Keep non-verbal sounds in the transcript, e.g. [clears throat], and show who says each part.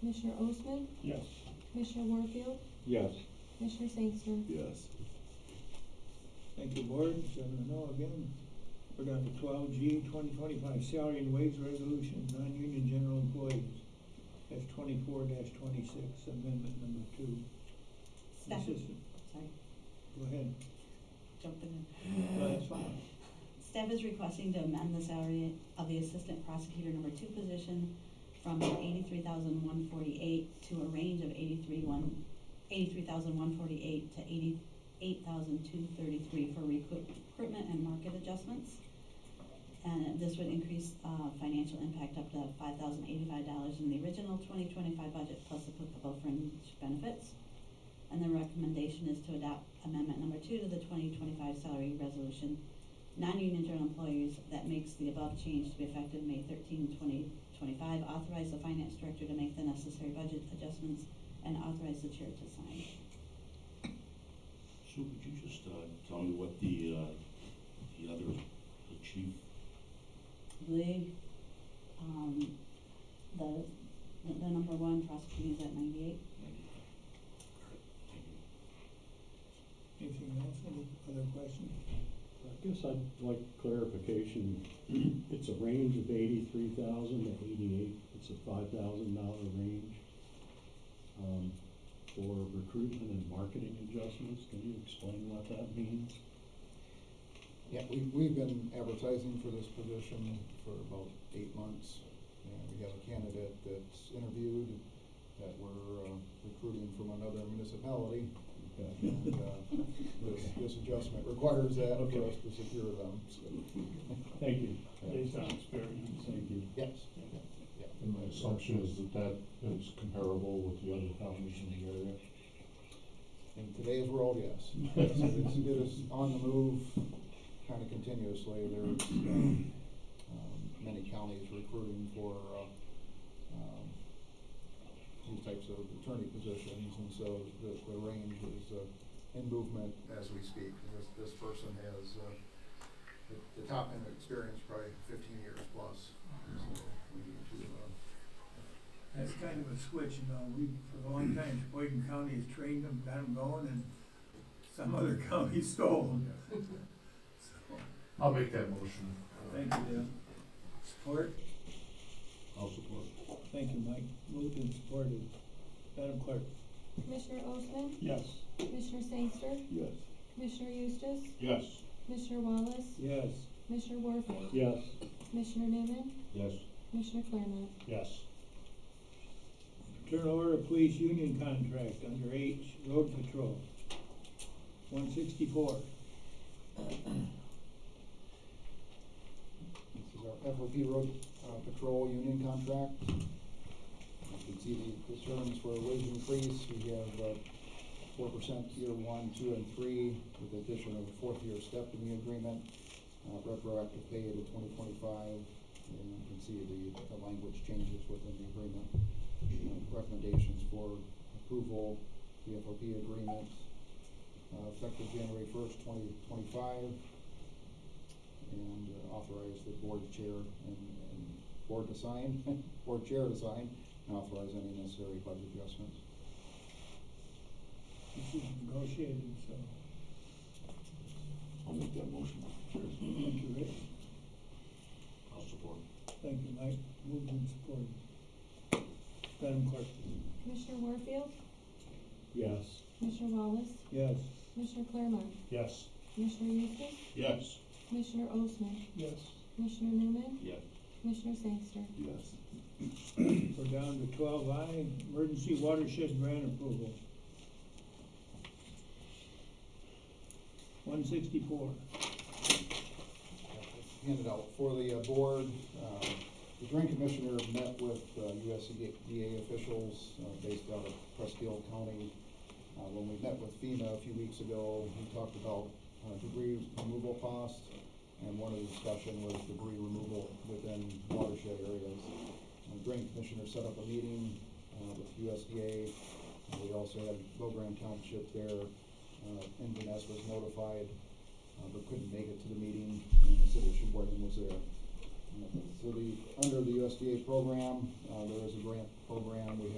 Speaker 1: Commissioner Osmann,
Speaker 2: Yes.
Speaker 1: Commissioner Warfield,
Speaker 2: Yes.
Speaker 1: Commissioner Sainsner.
Speaker 3: Yes.
Speaker 4: Thank you, board, seven and oh again. We're down to twelve G, twenty twenty-five salary and wage resolution, non-union general employees. That's twenty-four twenty-six, amendment number two.
Speaker 5: Staff,
Speaker 4: Assistant,
Speaker 5: sorry,
Speaker 4: Go ahead.
Speaker 5: jumping
Speaker 4: No, that's fine.
Speaker 5: in. Staff is requesting to amend the salary of the assistant prosecutor number two position from eighty-three thousand one forty-eight to a range of eighty-three one, eighty-three thousand one forty-eight to eighty-eight thousand two thirty-three for recruit- recruitment and market adjustments. And this would increase, uh, financial impact up to five thousand eighty-five dollars in the original twenty twenty-five budget plus applicable fringe benefits. And the recommendation is to adopt amendment number two to the twenty twenty-five salary resolution. Non-union general employees that makes the above change to be effective May 13, 2025. Authorize the finance director to make the necessary budget adjustments and authorize the chair to sign.
Speaker 3: Sue, could you just, uh, tell me what the, uh, the other, the chief,
Speaker 5: I believe, um, the, the the number one prosecutor is at ninety-eight.
Speaker 4: Anything else, any other questions?
Speaker 2: I guess I'd like clarification. [clears throat] It's a range of eighty-three thousand to eighty-eight. It's a five thousand dollar range. Um, for recruitment and marketing adjustments. Can you explain what that means?
Speaker 6: Yeah, we, we've been advertising for this position for about eight months. And we have a candidate that's interviewed that we're uh, recruiting from another municipality. And, uh, this, this adjustment requires that for us to secure them, so.
Speaker 2: Thank you.
Speaker 6: Based
Speaker 2: on experience. Thank you.
Speaker 6: Yes.
Speaker 7: And my assumption is that that is comparable with the other counties in the area.
Speaker 6: And today is we're all yes. It's, it's- it is on the move kind of continuously. There's, um, um, many counties recruiting for, uh, um, these types of attorney positions, and so the, the range is, uh, in movement as we speak. This, this person has, uh, the, the top end of experience probably fifteen years plus, so we need to, uh,
Speaker 4: That's kind of a switch, you know, we, for a long time, Sheboygan County has trained them, got them going, and some other [laughs] county stole them. So,
Speaker 7: I'll make that motion.
Speaker 4: Thank you, Dan. Support?
Speaker 3: I'll support.
Speaker 4: Thank you, Mike. Moved and supported. Madam Clerk?
Speaker 1: Commissioner Osmann,
Speaker 2: Yes.
Speaker 1: Commissioner Sainsner,
Speaker 3: Yes.
Speaker 1: Commissioner Eustace,
Speaker 2: Yes.
Speaker 1: Commissioner Wallace,
Speaker 4: Yes.
Speaker 1: Commissioner Warfield,
Speaker 2: Yes.
Speaker 1: Commissioner Newman,
Speaker 3: Yes.
Speaker 1: Commissioner Claremont.
Speaker 2: Yes.
Speaker 4: Turn over a police union contract under H, road patrol, one sixty-four.
Speaker 6: This is our FOP road uh, patrol union contract. You can see the- the terms for a wage increase, we have uh, four percent year one, two, and three, with the addition of a fourth year step in the agreement, uh, retroactive pay to twenty twenty-five, and you can see the, the language changes within the agreement. Uh, Recommendations for approval, the FOP agreement, uh, effective January first, twenty twenty-five, and uh, authorize the board chair and, and board to sign, [laughs] board chair to sign, and authorize any necessary budget adjustments.
Speaker 4: This is negotiated, so,
Speaker 3: I'll make that motion. Cheers.
Speaker 4: thank you, Rich.
Speaker 3: I'll support.
Speaker 4: Thank you, Mike. Moved and supported. Madam Clerk?
Speaker 1: Commissioner Warfield,
Speaker 2: Yes.
Speaker 1: Commissioner Wallace,
Speaker 4: Yes.
Speaker 1: Commissioner Claremont,
Speaker 2: Yes.
Speaker 1: Commissioner Eustace,
Speaker 3: Yes.
Speaker 1: Commissioner Osmann,
Speaker 4: Yes.
Speaker 1: Commissioner Newman,
Speaker 3: Yes.
Speaker 1: Commissioner Sainsner.
Speaker 3: Yes.
Speaker 4: We're down to twelve I, emergency watershed grant approval. One sixty-four.
Speaker 6: handed out for the uh, board. Um, The drain commissioner met with uh, USDA officials uh, based out of Prescott County. Uh, When we met with FEMA a few weeks ago, we talked about uh, debris removal costs, and one of the discussion was debris removal within watershed areas. Uh, Drain commissioner set up a meeting uh, with USDA. Uh, We also had Bogram Township there. Uh, inverness was notified uh, but couldn't make it to the meeting, and the city of Sheboygan was there. Uh, So the, under the USDA program, uh, there is a grant program, we